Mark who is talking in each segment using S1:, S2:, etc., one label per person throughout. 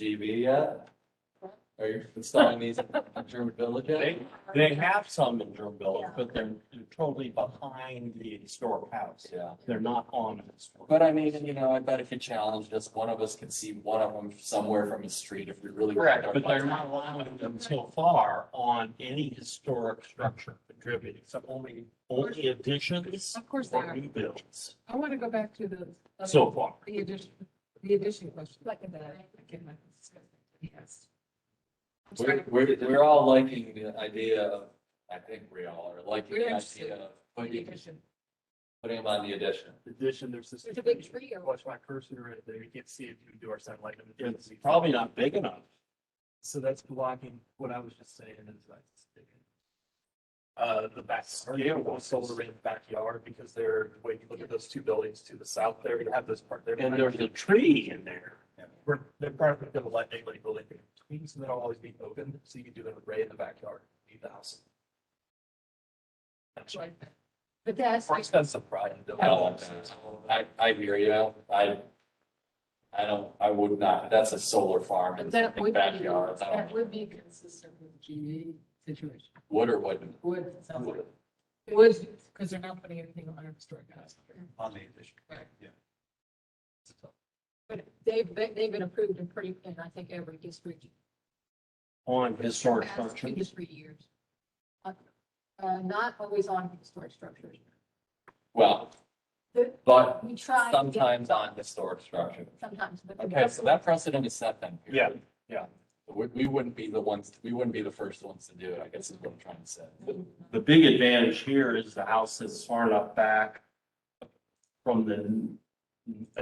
S1: GB yet? Are you installing these in German Village yet?
S2: They, they have some in Durham Village, but they're they're totally behind the historic house.
S1: Yeah,
S2: They're not on. the historic
S1: but I mean, you know, I bet if you challenged us, one of us could see one of them somewhere from the street if we really.
S2: Correct, but they're not allowing them so far on any historic structure contributing, so only, only additions.
S3: Of course they
S2: or
S3: are.
S2: New builds
S3: I want to go back to the. other-
S2: so far.
S3: The addition, the addition question. Like that. Yes. I'm
S1: We're,
S3: sorry.
S1: we're, we're all liking the idea of, I think we all are liking
S3: We're
S1: the
S3: interested.
S1: idea of
S3: The
S1: putting,
S3: addition.
S1: putting them on the addition.
S4: Addition, there's this.
S3: There's a big tree over
S4: Watch my cursor right there. You can't see it through door satellite. and it
S2: It's
S4: doesn't-
S2: probably not big enough.
S4: So that's blocking what I was just saying is like. Uh, the backyard, you don't want solar in the backyard because they're, when you look at those two buildings to the south there, you have this part there.
S2: And there's a tree in there.
S4: We're, they're probably gonna let anybody build anything in between, so that'll always be open, so you can do an array in the backyard, leave the house.
S3: it, like that. But that's,
S4: More expensive, probably.
S1: I don't want that. I, I hear you. I, I don't, I would not. That's a solar farm in
S3: but that
S1: the
S3: would be,
S1: backyard. I
S3: that
S1: don't-
S3: would be consistent with GE situation.
S1: Would or wouldn't?
S3: Would, it sounds like.
S1: Would.
S3: Would, because they're not putting anything on our historic house.
S4: On the addition.
S3: Right.
S4: Yeah.
S3: But they've, been- they've been approved in pretty, in I think every district.
S2: on historic
S3: past
S2: structure.
S3: Two to three years. Uh, uh, not always on historic structures.
S1: Well,
S3: The-
S1: but
S3: We try. to get-
S1: sometimes on historic structure.
S3: Sometimes, but. the
S1: Okay, so
S3: vessel-
S1: that precedent is set then.
S2: Yeah,
S1: yeah. We, we wouldn't be the ones, we wouldn't be the first ones to do it, I guess is what I'm trying to say.
S2: The big advantage here is the house is far enough back from the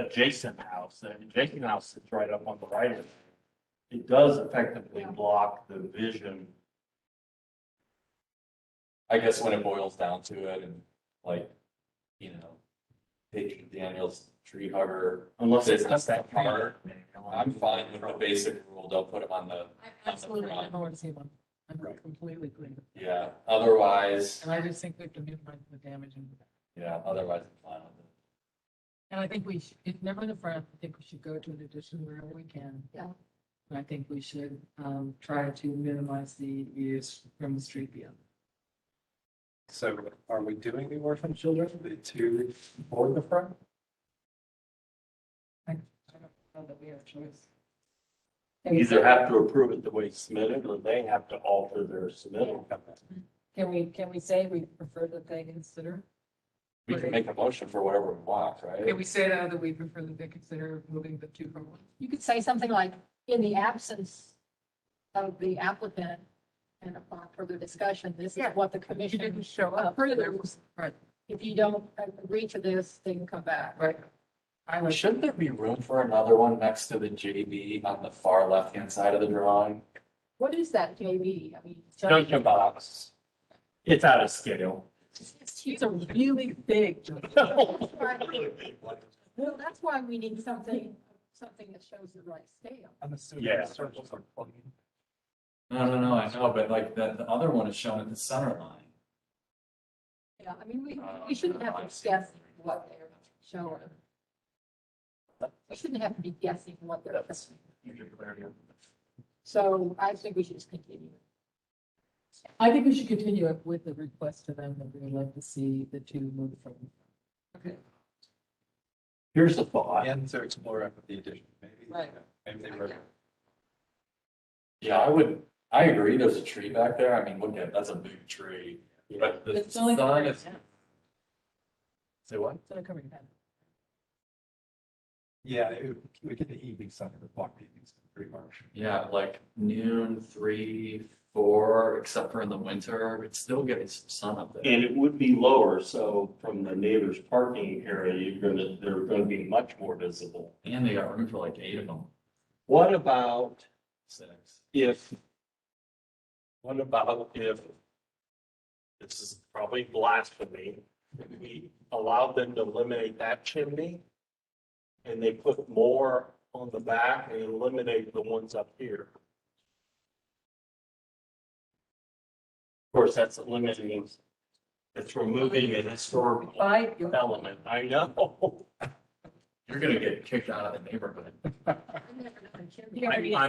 S2: adjacent house. The adjacent house is right up on the right of it. It does effectively block the vision.
S1: I guess when it boils down to it and like, you know, taking Daniel's tree hugger,
S2: Unless it's
S1: Business
S2: that
S1: that far. I'm fine with the basic rule, don't put them on the,
S3: I Absolutely, I don't want to see one. I'm
S2: Right.
S3: completely clear.
S1: yeah, otherwise,
S3: And I just think we have to minimize the damage. and-
S1: yeah, otherwise I'm fine with it.
S3: And I think we, should- if never in the front, I think we should go to an addition wherever we can. Yeah. And I think we should, um, try to minimize the use from the street view.
S4: So are we doing the orphan children to board the front?
S3: I don't know that we have choice.
S2: Either have to approve it the way submitted or they have to alter their submittal.
S3: Can we, can we say we prefer that they consider?
S1: We can make a motion for whatever we want,
S5: Can
S1: right?
S5: we say though that we prefer that they consider moving the two from one?
S3: You could say something like, in the absence of the applicant and upon further discussion, this is
S5: Yeah.
S3: what the
S5: If you
S3: commission
S5: didn't show up, there
S3: approves.
S5: was, right,
S3: If you don't agree to this, then come back.
S5: right. I was,
S1: Shouldn't there be room for another one next to the JB on the far left-hand side of the drawing?
S3: What is that, JV? I mean.
S2: Junction box. It's out of scale.
S3: She's a really big. Well, that's why we need something, something that shows the right scale.
S4: I'm assuming.
S2: Yeah.
S4: Circles are plugging.
S1: No, no, no, I know, but like the, the other one is shown at the center line.
S3: Yeah, I mean, we, we shouldn't have to guess what they're showing. We shouldn't have to be guessing what they're showing. So I think we should just continue.
S6: I think we should continue it with the request to them that we would like to see the two move from.
S2: Here's the thought.
S4: And to explore it with the addition, maybe.
S3: Right.
S4: Maybe they were.
S1: Yeah, I would, I agree, there's a tree back there, I mean, look at, that's a big tree, but the
S6: It's only
S1: sun is.
S6: covering
S1: Say what?
S6: It's only covering half.
S4: Yeah, we get the evening sun, the block evenings, pretty much.
S1: Yeah, like noon, three, four, except for in the winter, it's still getting some sun up there.
S2: And it would be lower, so from the neighbor's parking area, you're gonna, they're gonna be much more visible.
S1: And they got room for like eight of them,
S2: What about
S1: six.
S2: if? What about if? This is probably blasphemy, if we allowed them to eliminate that chimney. And they put more on the back and eliminate the ones up here. Of course, that's eliminating, it's removing an historical
S6: By your-
S2: element, I know.
S1: You're gonna get kicked out of the neighborhood.
S3: I never know.
S5: He already-
S2: I'm